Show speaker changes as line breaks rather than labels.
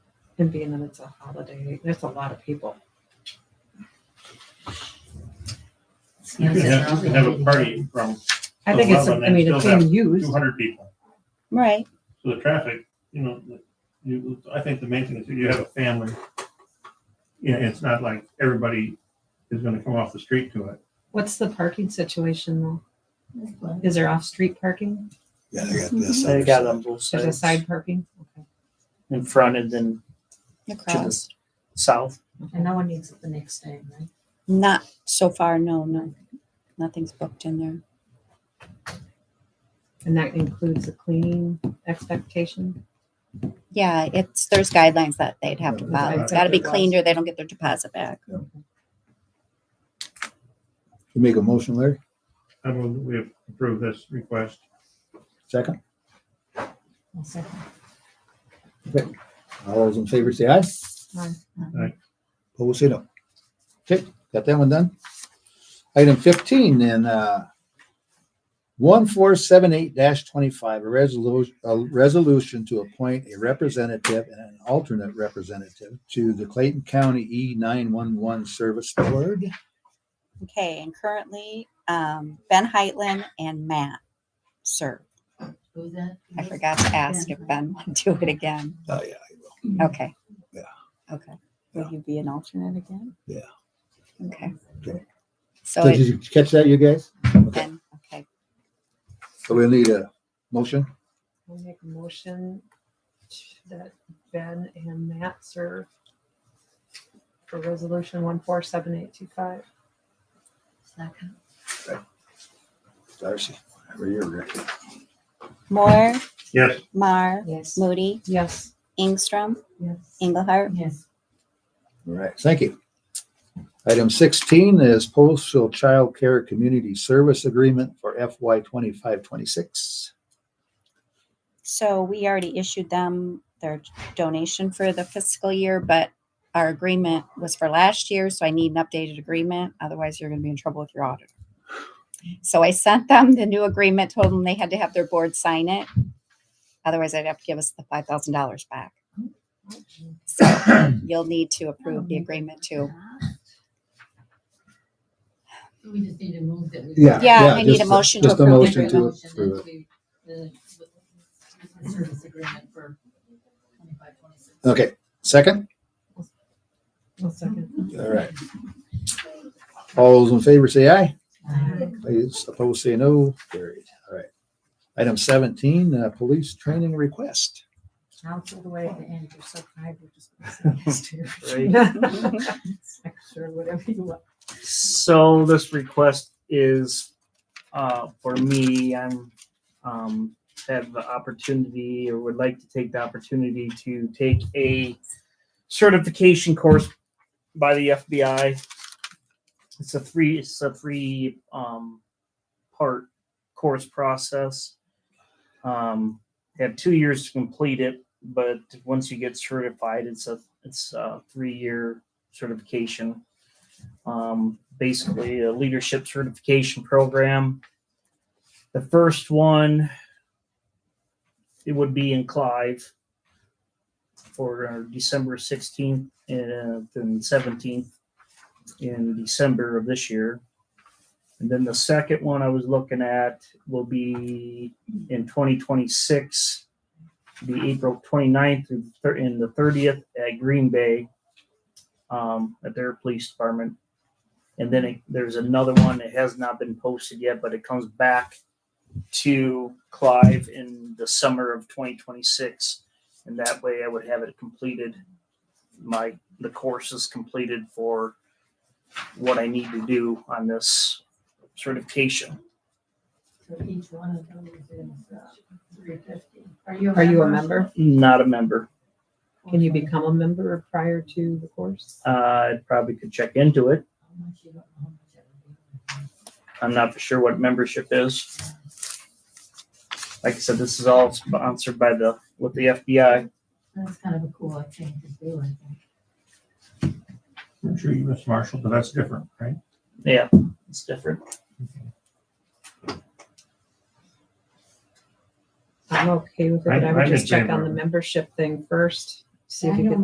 And being that it's a holiday, there's a lot of people.
You could have, you could have a party from
I think it's, I mean, it's being used.
two hundred people,
Right.
so the traffic, you know, the- you, I think the main thing is if you have a family. Yeah, it's not like everybody is gonna come off the street to it.
What's the parking situation though? Is there off-street parking?
Yeah, they got this.
They got on both
There's a
sides,
side parking? Okay.
in front and then
Across.
south.
And no one needs it the next day, right?
Not so far, no, no. Nothing's booked in there.
And that includes a cleaning expectation?
Yeah, it's, there's guidelines that they'd have to
Yeah,
follow.
I
It's gotta be
think it was.
cleaned or they don't get their deposit back.
You make a motion, Larry?
I move that we approve this request.
Second?
I'll second.
All those in favor say aye. Opposed, say no. Okay, got that one done. Item fifteen then, uh, one four seven eight twenty-five, a resolution, a resolution to appoint a representative and an alternate representative to the Clayton County E nine one one Service Board.
Okay, and currently, um, Ben Heitland and Matt serve.
Who's that?
I forgot to ask if Ben would do it again.
Oh, yeah.
Okay.
Yeah.
Okay. Will you be an alternate again?
Yeah.
Okay.
Okay.
So
Did
it
you catch that, you guys? Okay,
Ben, okay,
so we'll need a motion.
I'll make a motion that Ben and Matt serve for resolution one four seven eight two five.
Second.
Darcy, over here, Rick.
Moore,
Yes,
Mar,
Yes.
Moody,
Yes.
Ingstrom,
Yes.
Engelhardt.
Yes.
All right, thank you. Item sixteen is postal child care community service agreement for FY twenty-five, twenty-six.
So we already issued them their donation for the fiscal year, but our agreement was for last year, so I need an updated agreement. Otherwise, you're going to be in trouble with your auditor. So I sent them the new agreement, told them they had to have their board sign it. Otherwise, they'd have to give us the five thousand dollars back. So you'll need to approve the agreement too.
We just need to move that. we-
Yeah.
Yeah, I
yeah,
need
just
a
a-
motion to
just a
approve.
motion
the
to-
agreement.
Motion
approve it.
into the- the Service agreement for twenty-five, twenty-six.
Okay, second?
One second.
All right. All those in favor say aye.
Aye.
Please opposed say no. Carried. All right. Item seventeen, uh, police training request.
Council the way at the end, you're so kind, we're just. gonna say yes to your-
Extra, whatever you want.
So this request is uh, for me. I'm um, have the opportunity or would like to take the opportunity to take a certification course by the FBI. It's a three it's a three um, part course process. Um, you have two years to complete it, but once you get certified, it's a it's a three year certification um, basically a leadership certification program. The first one, it would be in Clive for uh, December 16th and then 17th in December of this year. And then the second one I was looking at will be in 2026, the April 29th through the thir- and the 30th at Green Bay um, at their police department. And then it, there's another one that has not been posted yet, but it comes back to Clive in the summer of 2026. And that way I would have it completed. My, the course is completed for what I need to do on this certification.
So each one of those is uh, three fifty. Are you?
Are you a member?
Not a member.
Can you become a member prior to the course?
Uh, I probably could check into it.
How much you don't know how much it would be.
I'm not for sure what membership is. Like I said, this is all sponsored by the, with the FBI.
That's kind of a cool thing to do, I think.
I'm sure you, Miss Marshall, but that's different, right?
Yeah, it's different.
I'm okay with it,
I-
but I
I
would
can
just check
agree
on the
with it.
membership thing first, see if
I
you
don't
could